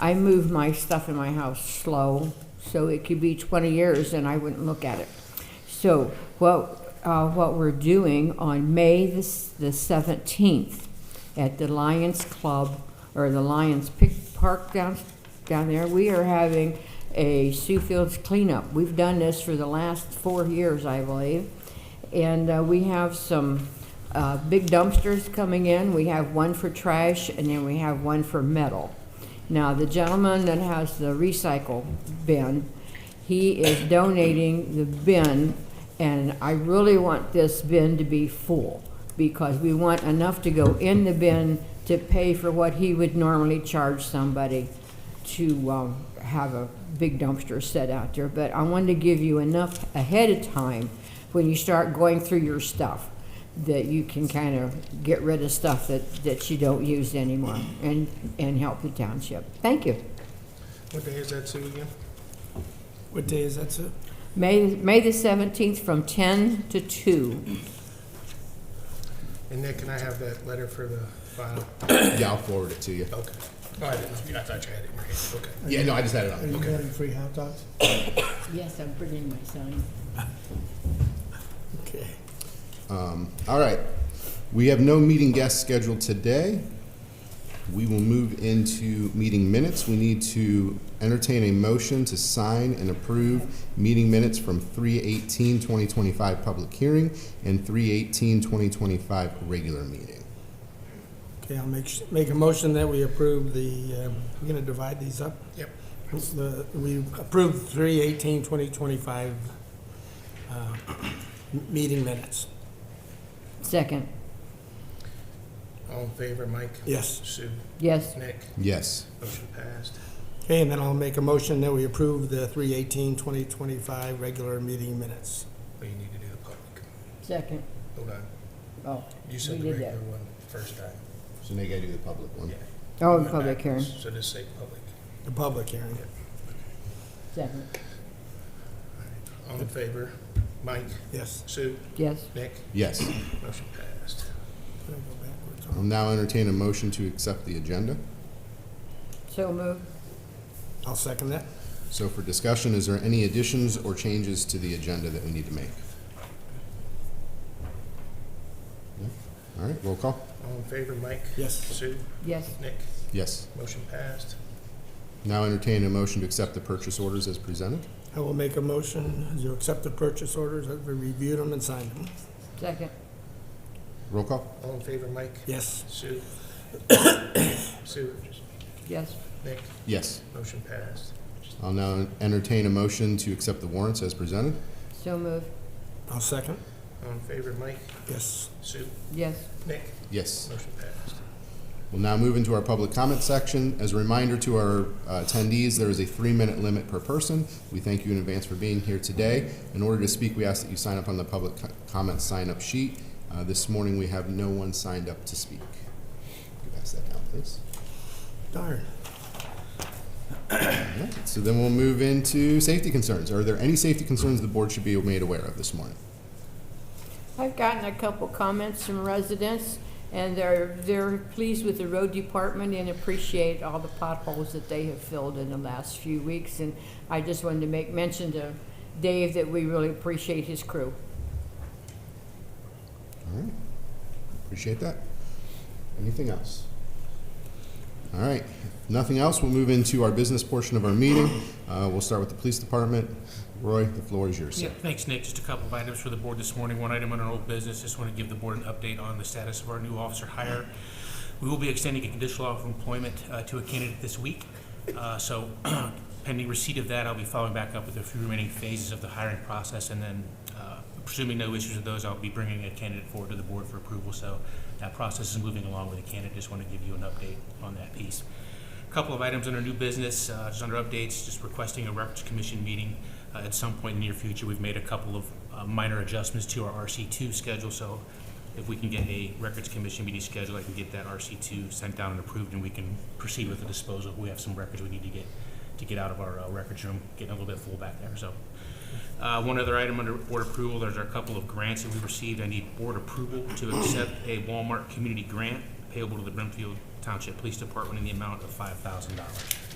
I move my stuff in my house slow, so it could be 20 years and I wouldn't look at it. So what, uh, what we're doing on May the s- the 17th at the Lions Club, or the Lions Pic- Park down, down there, we are having a Sioux Fields cleanup. We've done this for the last four years, I believe. And uh, we have some uh, big dumpsters coming in. We have one for trash and then we have one for metal. Now, the gentleman that has the recycle bin, he is donating the bin, and I really want this bin to be full, because we want enough to go in the bin to pay for what he would normally charge somebody to um, have a big dumpster set out there. But I wanted to give you enough ahead of time when you start going through your stuff that you can kind of get rid of stuff that, that you don't use anymore and, and help the township. Thank you. What day is that, Sue, again? What day is that, sir? May, May the 17th from 10 to 2. And Nick, can I have that letter for the file? Yeah, I'll forward it to you. Okay. Oh, I didn't know, if you- I thought you had it in your hand, okay. Yeah, no, I just had it on. Are you having free hot dogs? Yes, I'm bringing my sign. Okay. All right. We have no meeting guests scheduled today. We will move into meeting minutes. We need to entertain a motion to sign and approve meeting minutes from 3/18/2025 public hearing and 3/18/2025 regular meeting. Okay, I'll make, sh- make a motion that we approve the, um, we're gonna divide these up? Yep. The- We approve three eighteen twenty twenty-five, uh, m- meeting minutes. Second. All in favor, Mike? Yes. Sue? Yes, Nick? Yes. Motion passed. Okay, and then I'll make a motion that we approve the three eighteen twenty twenty-five regular meeting minutes. Well, you need to do the public. second. Hold on. Oh, You said We the did that. regular one first time. So now you gotta do the public one. Yeah. oh, Went public hearing, backwards, So just say public. The public hearing. second. All in favor, Mike? Yes. Sue? Yes, Nick? Yes. Motion passed. Gotta go backwards. I'll now entertain a motion to accept the agenda. so moved. I'll second that. So for discussion, is there any additions or changes to the agenda that we need to make? No? All right, roll call. All in favor, Mike? Yes. Sue? Yes, Nick? Yes. Motion passed. Now entertain a motion to accept the purchase orders as presented. I will make a motion to accept the purchase orders, that we reviewed them and signed them. second. Roll call. All in favor, Mike? Yes. Sue? Sue? Yes, Nick? Yes. Motion passed. I'll now entertain a motion to accept the warrants as presented. so moved. I'll second. All in favor, Mike? Yes. Sue? Yes, Nick? Yes. Motion passed. We'll now move into our public comment section. As a reminder to our uh, attendees, there is a three-minute limit per person. We thank you in advance for being here today. In order to speak, we ask that you sign up on the public co- comment sign-up sheet. Uh, This morning, we have no one signed up to speak. You Pass that down, please. Darn. All right. So then we'll move into safety concerns. Are there any safety concerns the board should be made aware of this morning? I've gotten a couple comments from residents, and they're, they're pleased with the road department and appreciate all the potholes that they have filled in the last few weeks. And I just wanted to make mention to Dave that we really appreciate his crew. All right. Appreciate that. Anything else? All right. If Nothing else. We'll move into our business portion of our meeting. Uh, we'll start with the police department. Roy, the floor is yours, Yeah, sir. thanks, Nick. Just a couple of items for the board this morning. One item on our old business, just want to give the board an update on the status of our new officer hire. We will be extending a conditional offer of employment uh, to a candidate this week. Uh, So pending receipt of that, I'll be following back up with a few remaining phases of the hiring process. And then uh, presuming no issues with those, I'll be bringing a candidate forward to the board for approval. So that process is moving along with the candidate. Just want to give you an update on that piece. Couple of items under new business, uh, just under updates, just requesting a records commission meeting uh, at some point in the near future. We've made a couple of uh, minor adjustments to our RC2 schedule, so if we can get a records commission meeting scheduled, I can get that RC2 sent down and approved, and we can proceed with the disposal. We have some records we need to get, to get out of our uh, records room, getting a little bit full back there, so. Uh, One other item under board approval, there's a couple of grants that we received. I need board approval to accept a Walmart community grant payable to the Brimfield Township Police Department in the amount of five thousand dollars.